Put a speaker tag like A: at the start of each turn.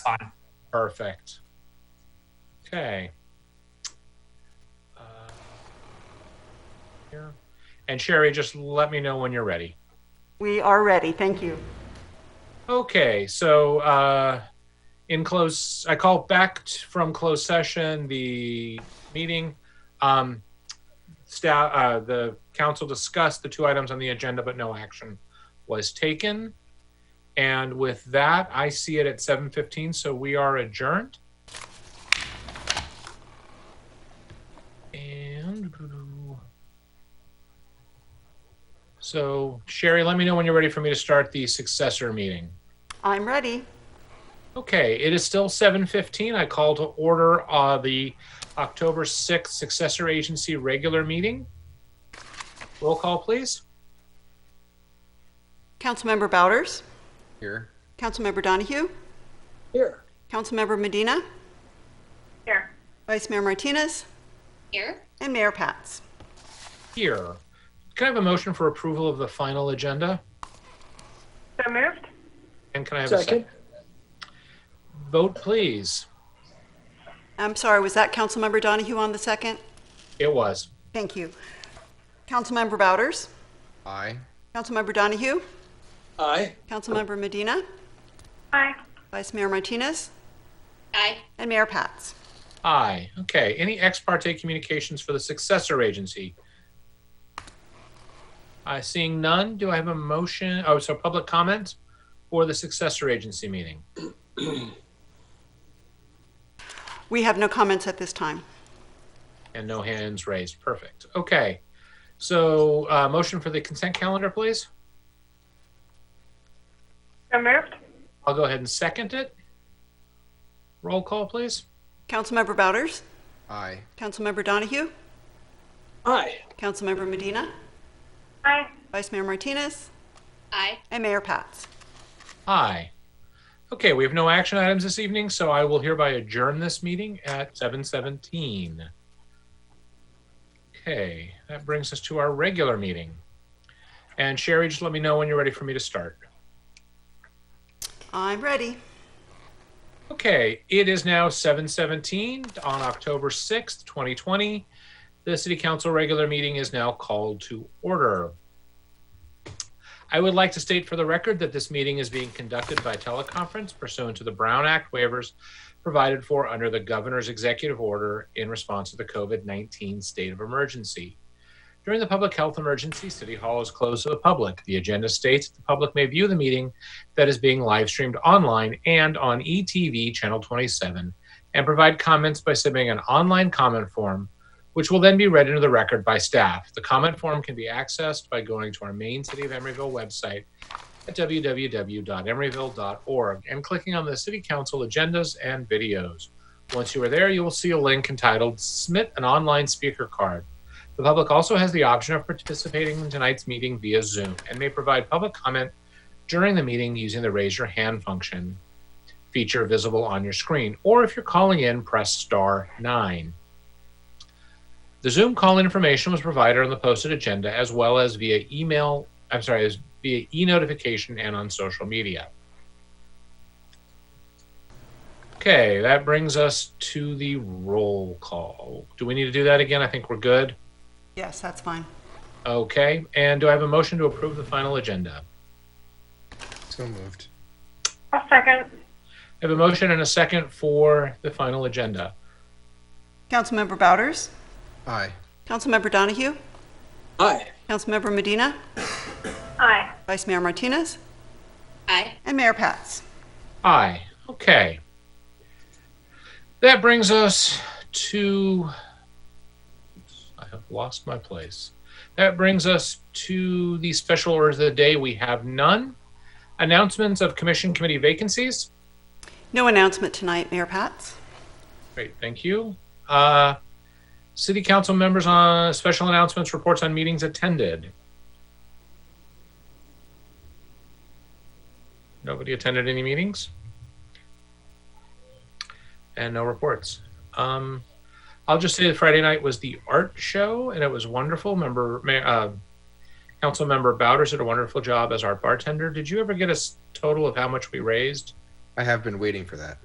A: fine.
B: Perfect. Okay. Uh, Here. And Sherry, just let me know when you're ready.
C: We are ready. Thank you.
B: Okay, so uh, in close, I call back t- from closed session the meeting. Um, staff, uh, the council discussed the two items on the agenda, but no action was taken. And with that, I see it at 7:15, so we are adjourned. And so Sherry, let me know when you're ready for me to start the successor meeting.
C: I'm ready.
B: Okay, it is still 7:15. I call to order uh, the October 6th successor agency regular meeting. Roll call, please.
C: Councilmember Bouders?
D: Here.
C: Councilmember Donahue?
D: Here.
C: Councilmember Medina?
A: Here.
C: Vice Mayor Martinez?
A: Here.
C: And Mayor Pats?
B: Here. Can I have a motion for approval of the final agenda?
A: So moved.
B: And can I have a second? Vote, please.
C: I'm sorry, was that Councilmember Donahue on the second?
B: It was.
C: Thank you. Councilmember Bouders?
D: Aye.
C: Councilmember Donahue?
E: Aye.
C: Councilmember Medina?
A: Aye.
C: Vice Mayor Martinez?
A: Aye.
C: And Mayor Pats?
B: Aye. Okay, any ex parte communications for the successor agency? Uh, Seeing none, do I have a motion, oh, so public comment for the successor agency meeting?
C: We have no comments at this time.
B: And no hands raised. Perfect. Okay. So, uh, motion for the consent calendar, please.
A: So moved.
B: I'll go ahead and second it. Roll call, please.
C: Councilmember Bouders?
D: Aye.
C: Councilmember Donahue?
E: Aye.
C: Councilmember Medina?
A: Aye.
C: Vice Mayor Martinez?
A: Aye.
C: And Mayor Pats?
B: Aye. Okay, we have no action items this evening, so I will hereby adjourn this meeting at 7:17. Okay, that brings us to our regular meeting. And Sherry, just let me know when you're ready for me to start.
C: I'm ready.
B: Okay, it is now 7:17 on October 6th, 2020. The City Council regular meeting is now called to order. I would like to state for the record that this meeting is being conducted by teleconference pursuant to the Brown Act waivers provided for under the Governor's executive order in response to the COVID-19 state of emergency. During the public health emergency, City Hall is closed to the public. The agenda states the public may view the meeting that is being live streamed online and on ETV Channel 27, and provide comments by submitting an online comment form, which will then be read into the record by staff. The comment form can be accessed by going to our main City of Emeryville website at www.emeryville.org and clicking on the City Council agendas and videos. Once you are there, you will see a link entitled Submit an Online Speaker Card. The public also has the option of participating in tonight's meeting via Zoom and may provide public comment during the meeting using the raise your hand function feature visible on your screen. Or if you're calling in, press star nine. The Zoom call information was provided on the posted agenda as well as via email, I'm sorry, as via e notification and on social media. Okay, that brings us to the roll call. Do we need to do that again? I think we're good.
C: Yes, that's fine.
B: Okay, and do I have a motion to approve the final agenda?
D: So moved.
A: I'll second.
B: I have a motion and a second for the final agenda.
C: Councilmember Bouders?
D: Aye.
C: Councilmember Donahue?
E: Aye.
C: Councilmember Medina?
A: Aye.
C: Vice Mayor Martinez?
A: Aye.
C: And Mayor Pats?
B: Aye. Okay. That brings us to. I have lost my place. That brings us to the special orders of the day. We have none. Announcements of commission committee vacancies.
C: No announcement tonight, Mayor Pats.
B: Great, thank you. Uh, city council members on special announcements, reports on meetings attended. Nobody attended any meetings? And no reports. Um, I'll just say that Friday night was the art show and it was wonderful. Member, ma- uh, council member Bowders did a wonderful job as our bartender. Did you ever get a s- total of how much we raised?
D: I have been waiting for that.